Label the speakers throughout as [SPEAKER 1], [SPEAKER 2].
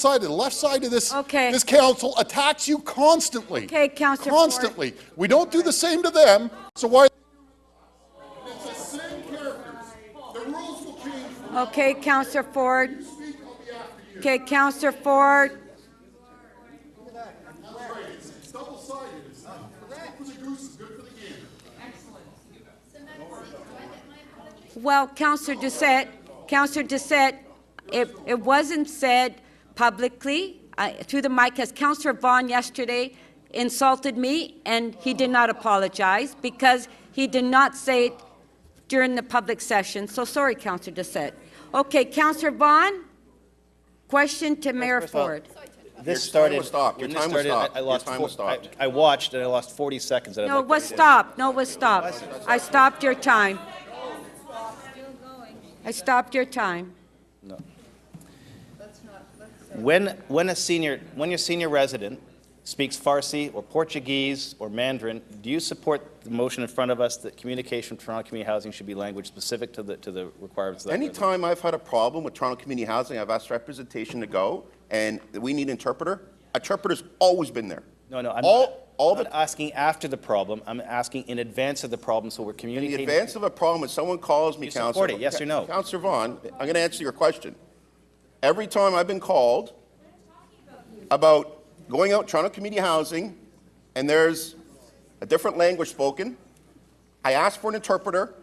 [SPEAKER 1] side, to the left side of this,
[SPEAKER 2] Okay.
[SPEAKER 1] this council attacks you constantly.
[SPEAKER 2] Okay, Counselor Ford.
[SPEAKER 1] Constantly. We don't do the same to them, so why? It's the same characters. The rules will change.
[SPEAKER 2] Okay, Counselor Ford. Okay, Counselor Ford.
[SPEAKER 1] It's double-sided. It's not, good for the goose, it's good for the gander.
[SPEAKER 2] Well, Counselor Doucette, Counselor Doucette, it, it wasn't said publicly I- through the mic, as Counselor Vaughn yesterday insulted me, and he did not apologize because he did not say it during the public session. So sorry, Counselor Doucette. Okay, Counselor Vaughn, question to Mayor
[SPEAKER 3] first of all,
[SPEAKER 2] Ford.
[SPEAKER 3] This
[SPEAKER 4] Your time
[SPEAKER 3] started.
[SPEAKER 4] was stopped. Your
[SPEAKER 3] when this
[SPEAKER 4] time was
[SPEAKER 3] started, I-
[SPEAKER 4] stopped.
[SPEAKER 3] I
[SPEAKER 4] Your
[SPEAKER 3] lost
[SPEAKER 4] time
[SPEAKER 3] four-
[SPEAKER 4] was stopped.
[SPEAKER 3] I I watched and I lost 40 seconds. and I'd
[SPEAKER 2] No,
[SPEAKER 3] like
[SPEAKER 2] it
[SPEAKER 3] to-
[SPEAKER 2] was stopped. No, it was stopped. I stopped your time. I stopped your time.
[SPEAKER 3] When, when a senior, when your senior resident speaks Farsi or Portuguese or Mandarin, do you support the motion in front of us that communication from Toronto Community Housing should be language specific to the, to the requirements of that? resident?
[SPEAKER 4] Anytime I've had a problem with Toronto Community Housing, I've asked representation to go, and we need interpreter. Interpreter's always been there.
[SPEAKER 3] No, no, I'm not,
[SPEAKER 4] All, all
[SPEAKER 3] not
[SPEAKER 4] the,
[SPEAKER 3] asking after the problem. I'm asking in advance of the problem, so we're
[SPEAKER 4] in the
[SPEAKER 3] communicating.
[SPEAKER 4] advance of a problem, if someone calls me,
[SPEAKER 3] You
[SPEAKER 4] Counselor.
[SPEAKER 3] support it, yes or no?
[SPEAKER 4] Counselor Vaughn, I'm gonna answer your question. Every time I've been called about going out Toronto Community Housing, and there's a different language spoken, I ask for an interpreter.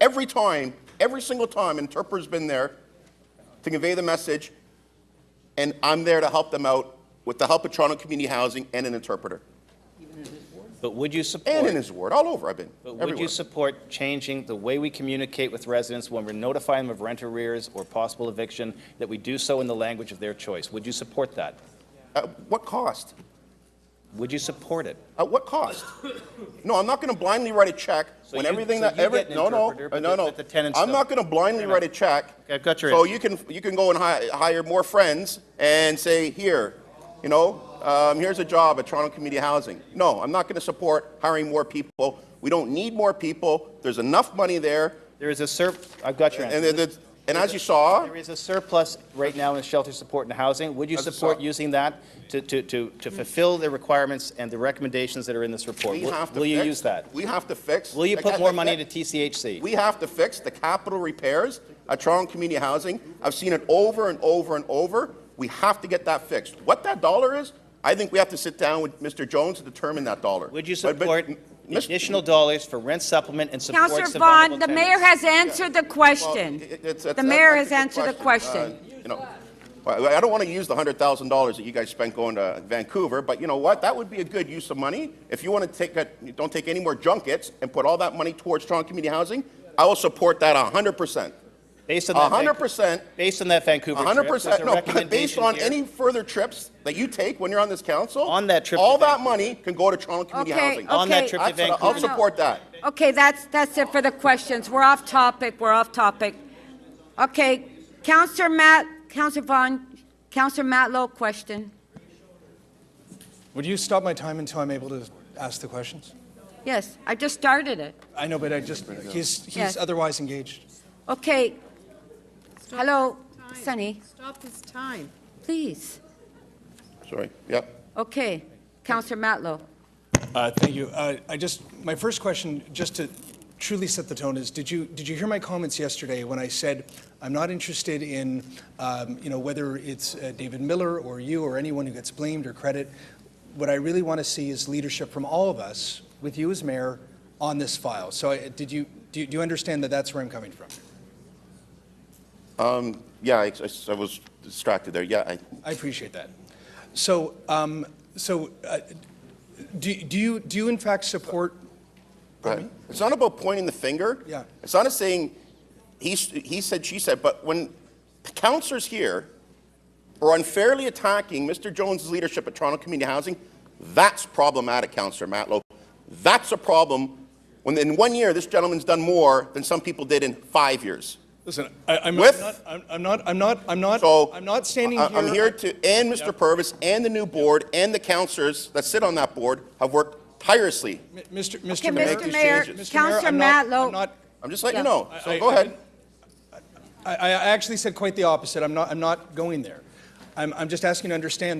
[SPEAKER 4] Every time, every single time, an interpreter's been there to convey the message, and I'm there to help them out with the help of Toronto Community Housing and an interpreter.
[SPEAKER 3] But would you support?
[SPEAKER 4] And in his ward, all over I've been,
[SPEAKER 3] But would
[SPEAKER 4] everywhere.
[SPEAKER 3] you support changing the way we communicate with residents when we're notifying them of rent arrears or possible eviction, that we do so in the language of their choice? Would you support that?
[SPEAKER 4] At Uh, what cost?
[SPEAKER 3] Would you support it?
[SPEAKER 4] At what cost? No, I'm not going to blindly write a check
[SPEAKER 3] So
[SPEAKER 4] when
[SPEAKER 3] you-
[SPEAKER 4] everything
[SPEAKER 3] so
[SPEAKER 4] that,
[SPEAKER 3] you
[SPEAKER 4] every,
[SPEAKER 3] get an
[SPEAKER 4] no, no,
[SPEAKER 3] interpreter, but
[SPEAKER 4] no,
[SPEAKER 3] the-
[SPEAKER 4] no.
[SPEAKER 3] but the tenants
[SPEAKER 4] I'm
[SPEAKER 3] don't.
[SPEAKER 4] not going to blindly
[SPEAKER 3] enough.
[SPEAKER 4] write a check.
[SPEAKER 3] Okay, I've got your
[SPEAKER 4] So
[SPEAKER 3] answer.
[SPEAKER 4] you can, you can go and hi- hire more friends and say, here, you know, um, here's a job at Toronto Community Housing. No, I'm not going to support hiring more people. We don't need more people. There's enough money there.
[SPEAKER 3] There is a sur, I've got your
[SPEAKER 4] And,
[SPEAKER 3] answer.
[SPEAKER 4] and, it's- and as you saw,
[SPEAKER 3] There is a surplus right now in shelter support and housing. Would you
[SPEAKER 4] As a
[SPEAKER 3] support
[SPEAKER 4] sub-
[SPEAKER 3] using that to, to, to to fulfill the requirements and the recommendations that are in this report?
[SPEAKER 4] we
[SPEAKER 3] Will-
[SPEAKER 4] have to fix.
[SPEAKER 3] Will you use that?
[SPEAKER 4] We have to fix.
[SPEAKER 3] Will you
[SPEAKER 4] the
[SPEAKER 3] put
[SPEAKER 4] ca-
[SPEAKER 3] more
[SPEAKER 4] the-
[SPEAKER 3] money
[SPEAKER 4] the-
[SPEAKER 3] to TCHC?
[SPEAKER 4] We have to fix the capital repairs at Toronto Community Housing. I've seen it over and over and over. We have to get that fixed. What that dollar is, I think we have to sit down with Mr. Jones to determine that dollar.
[SPEAKER 3] Would you
[SPEAKER 4] But- but,
[SPEAKER 3] support
[SPEAKER 4] Mis-
[SPEAKER 3] additional dollars for rent supplement and support
[SPEAKER 2] Counselor
[SPEAKER 3] survivable
[SPEAKER 2] Vaughn, the
[SPEAKER 3] tenants?
[SPEAKER 2] mayor has answered the
[SPEAKER 4] well,
[SPEAKER 2] question.
[SPEAKER 4] it- it's- it's-
[SPEAKER 2] The mayor
[SPEAKER 4] that's
[SPEAKER 2] has
[SPEAKER 4] a good
[SPEAKER 2] answered the question.
[SPEAKER 4] Uh, You know, well, I don't want to use the hundred thousand dollars that you guys spent going to Vancouver, but you know what? That would be a good use of money. If you want to take, a- don't take any more junkets and put all that money towards Toronto Community Housing, I will support that hundred percent.
[SPEAKER 3] Based on that. Van-
[SPEAKER 4] 100%.
[SPEAKER 3] Based on that Vancouver trip,
[SPEAKER 4] hundred
[SPEAKER 3] there's
[SPEAKER 4] percent,
[SPEAKER 3] a
[SPEAKER 4] no, but based
[SPEAKER 3] recommendation
[SPEAKER 4] on
[SPEAKER 3] here.
[SPEAKER 4] any further trips that you take when you're on this council.
[SPEAKER 3] On that trip
[SPEAKER 4] All
[SPEAKER 3] to
[SPEAKER 4] that
[SPEAKER 3] Vancouver.
[SPEAKER 4] money can go to Toronto Uh, Community
[SPEAKER 2] Okay,
[SPEAKER 4] Housing.
[SPEAKER 3] On that
[SPEAKER 2] Okay.
[SPEAKER 3] trip to
[SPEAKER 4] That's what I- I'll
[SPEAKER 3] Vancouver.
[SPEAKER 4] support that.
[SPEAKER 2] Okay, that's, that's it for the questions. We're off topic, we're off topic. Okay, Counselor Matt, Counselor Vaughn, Counselor Matlow, question.
[SPEAKER 5] Would you stop my time until I'm able to ask the questions?
[SPEAKER 2] Yes, I just started it.
[SPEAKER 5] I know, but I just,
[SPEAKER 2] Yes.
[SPEAKER 5] he's, he's otherwise engaged.
[SPEAKER 2] Okay,
[SPEAKER 6] Stop
[SPEAKER 2] hello,
[SPEAKER 6] his time.
[SPEAKER 2] Sunny,
[SPEAKER 6] Stop his time.
[SPEAKER 2] please.
[SPEAKER 4] Sorry, yep.
[SPEAKER 2] Okay, Counselor Matlow.
[SPEAKER 5] Uh, Thank you. Uh, I just, my first question, just to truly set the tone, is did you, did you hear my comments yesterday when I said, I'm not interested in, um, you know, whether it's uh, David Miller or you or anyone who gets blamed or credit? What I really want to see is leadership from all of us, with you as mayor, on this file. So I- did you, do you- do you understand that that's where I'm coming from?
[SPEAKER 4] Yeah, I, I- I was distracted there, yeah, I,
[SPEAKER 5] I appreciate that. So, um, so, uh, do, do you, do you in fact support,
[SPEAKER 4] Right. It's not about pointing the finger.
[SPEAKER 5] Yeah.
[SPEAKER 4] It's not a saying he, he said, she said, but when counselors here are unfairly attacking Mr. Jones' leadership at Toronto Community Housing, that's problematic, Councillor Matlow. That's a problem when in one year this gentleman's done more than some people did in five years.
[SPEAKER 5] listen, I, I'm
[SPEAKER 4] With-
[SPEAKER 5] not, I'm I'm not, I'm not, I'm not,
[SPEAKER 4] So
[SPEAKER 5] I'm not standing
[SPEAKER 4] I-
[SPEAKER 5] here.
[SPEAKER 4] I'm here to, and Mr. Purvis and the new board and the counselors that sit on that board have worked tirelessly.
[SPEAKER 5] M- uh, Mr. Mr.
[SPEAKER 2] Okay,
[SPEAKER 5] Mayor.
[SPEAKER 2] Mr.
[SPEAKER 4] these
[SPEAKER 2] Mayor,
[SPEAKER 4] changes.
[SPEAKER 5] Mr. Mayor,
[SPEAKER 2] Counselor
[SPEAKER 5] I'm not-
[SPEAKER 2] Matlow.
[SPEAKER 5] I'm not,
[SPEAKER 4] I'm just letting you
[SPEAKER 2] Yeah.
[SPEAKER 4] know.
[SPEAKER 5] I-
[SPEAKER 4] So go
[SPEAKER 5] I-
[SPEAKER 4] ahead.
[SPEAKER 5] I, I actually said quite the opposite. I'm not, I'm not going there. I- I'm, I'm just asking you to understand